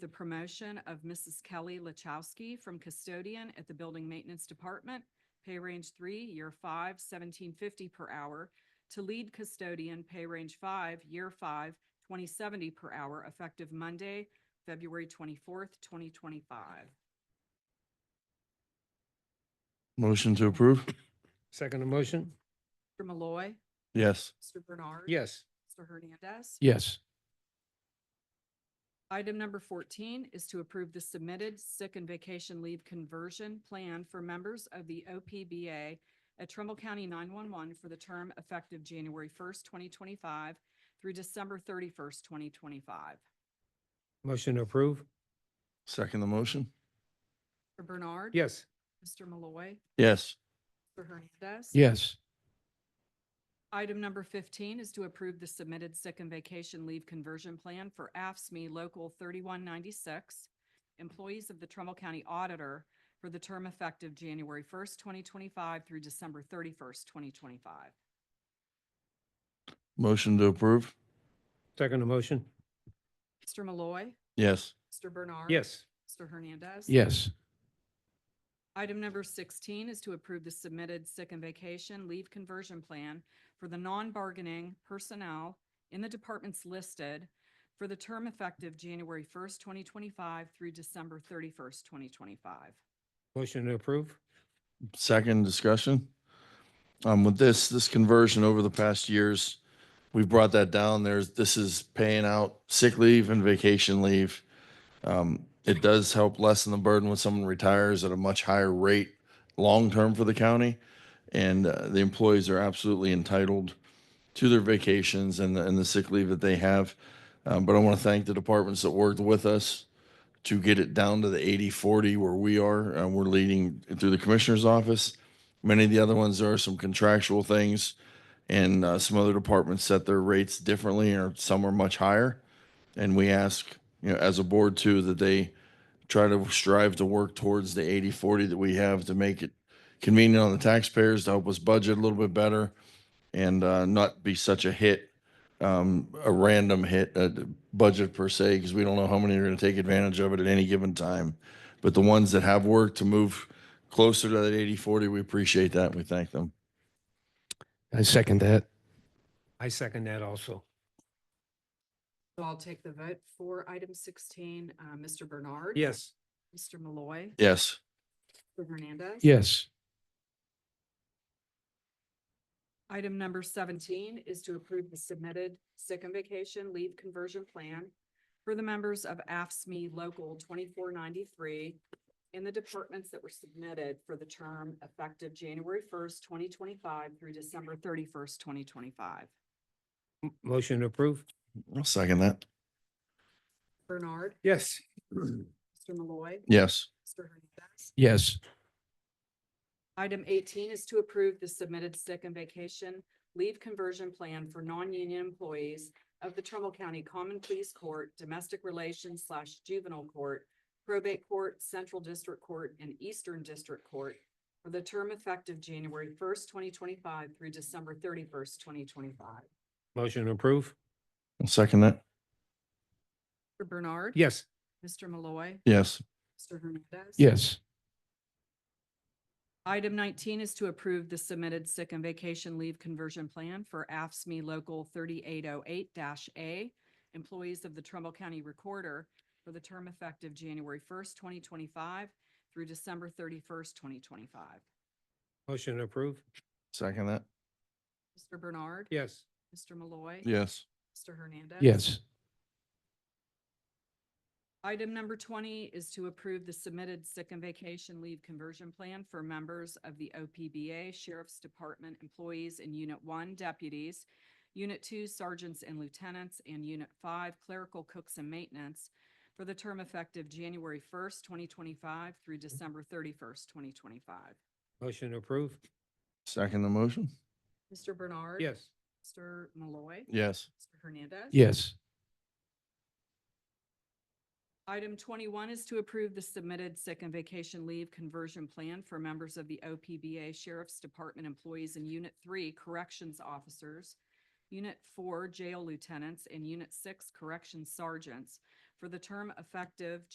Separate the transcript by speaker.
Speaker 1: the promotion of Mrs. Kelly Lachowski from custodian at the Building Maintenance Department, pay range three, year five, seventeen fifty per hour, to lead custodian, pay range five, year five, twenty seventy per hour, effective Monday, February twenty-fourth, twenty twenty-five.
Speaker 2: Motion to approve?
Speaker 3: Second motion?
Speaker 1: Mr. Malloy,
Speaker 2: Yes.
Speaker 1: Mr. Bernard.
Speaker 3: Yes.
Speaker 1: Mr. Hernandez.
Speaker 3: Yes.
Speaker 1: Item number fourteen is to approve the submitted sick and vacation leave conversion plan for members of the OPBA at Trumbull County nine-one-one for the term effective January first, twenty twenty-five through December thirty-first, twenty twenty-five.
Speaker 3: Motion to approve?
Speaker 2: Second the motion?
Speaker 1: Mr. Bernard.
Speaker 3: Yes.
Speaker 1: Mr. Malloy.
Speaker 2: Yes.
Speaker 1: Mr. Hernandez.
Speaker 3: Yes.
Speaker 1: Item number fifteen is to approve the submitted sick and vacation leave conversion plan for AFSME E Local thirty-one ninety-six, employees of the Trumbull County Auditor for the term effective January first, twenty twenty-five through December thirty-first, twenty twenty-five.
Speaker 2: Motion to approve?
Speaker 3: Second motion?
Speaker 1: Mr. Malloy.
Speaker 2: Yes.
Speaker 1: Mr. Bernard.
Speaker 3: Yes.
Speaker 1: Mr. Hernandez.
Speaker 3: Yes.
Speaker 1: Item number sixteen is to approve the submitted sick and vacation leave conversion plan for the non-bargaining personnel in the departments listed for the term effective January first, twenty twenty-five through December thirty-first, twenty twenty-five.
Speaker 3: Motion to approve?
Speaker 2: Second discussion? Um, with this, this conversion over the past years, we've brought that down. There's, this is paying out sick leave and vacation leave. Um, it does help lessen the burden when someone retires at a much higher rate long-term for the county. And uh, the employees are absolutely entitled to their vacations and the, and the sick leave that they have. Um, but I want to thank the departments that worked with us to get it down to the 80 40 where we are. Uh, we're leading through the commissioner's office. Many of the other ones, there are some contractual things, and uh, some other departments set their rates differently, or some are much higher. And we ask, you know, as a board too, that they try to strive to work towards the 80 40 that we have to make it convenient on the taxpayers to help us budget a little bit better and uh, not be such a hit um, a random hit, uh, d- budget per se, because we don't know how many are going to take advantage of it at any given time. But the ones that have worked to move closer to that 80, 40, we appreciate that. We thank them.
Speaker 3: I second that. I second that also.
Speaker 1: So I'll take the vote for item sixteen, uh, Mr. Bernard.
Speaker 3: Yes.
Speaker 1: Mr. Malloy.
Speaker 2: Yes.
Speaker 1: Mr. Hernandez.
Speaker 3: Yes.
Speaker 1: Item number seventeen is to approve the submitted sick and vacation leave conversion plan for the members of AFSME E Local twenty-four ninety-three in the departments that were submitted for the term effective January first, twenty twenty-five through December thirty-first, twenty twenty-five.
Speaker 3: M- Motion to approve?
Speaker 2: I'll second that.
Speaker 1: Bernard,
Speaker 3: Yes.
Speaker 1: Mr. Malloy,
Speaker 2: Yes.
Speaker 1: Mr. Hernandez.
Speaker 3: Yes.
Speaker 1: Item eighteen is to approve the submitted sick and vacation leave conversion plan for non-union employees of the Trumbull County Common Pleas Court, Domestic Relations slash Juvenile Court, Probate Court, Central District Court, and Eastern District Court for the term effective January first, twenty twenty-five through December thirty-first, twenty twenty-five.
Speaker 3: Motion to approve?
Speaker 2: I'll second that.
Speaker 1: Mr. Bernard.
Speaker 3: Yes.
Speaker 1: Mr. Malloy.
Speaker 2: Yes.
Speaker 1: Mr. Hernandez.
Speaker 3: Yes.
Speaker 1: Item nineteen is to approve the submitted sick and vacation leave conversion plan for AFSME E Local thirty-eight oh eight A, employees of the Trumbull County Recorder for the term effective January first, twenty twenty-five through December thirty-first, twenty twenty-five.
Speaker 3: Motion to approve?
Speaker 2: Second that.
Speaker 1: Mr. Bernard.
Speaker 3: Yes.
Speaker 1: Mr. Malloy.
Speaker 2: Yes.
Speaker 1: Mr. Hernandez.
Speaker 3: Yes.
Speaker 1: Item number twenty is to approve the submitted sick and vacation leave conversion plan for members of the OPBA Sheriff's Department employees in Unit One deputies, Unit Two sergeants and lieutenants, and Unit Five clerical cooks and maintenance for the term effective January first, twenty twenty-five through December thirty-first, twenty twenty-five.
Speaker 3: Motion to approve?
Speaker 2: Second the motion.
Speaker 1: Mr. Bernard.
Speaker 3: Yes.
Speaker 1: Mr. Malloy.
Speaker 2: Yes.
Speaker 1: Mr. Hernandez.
Speaker 3: Yes.
Speaker 1: Item twenty-one is to approve the submitted sick and vacation leave conversion plan for members of the OPBA Sheriff's Department employees in Unit Three Corrections Officers, Unit Four Jail Lieutenants, and Unit Six Corrections Sergeants for the term effective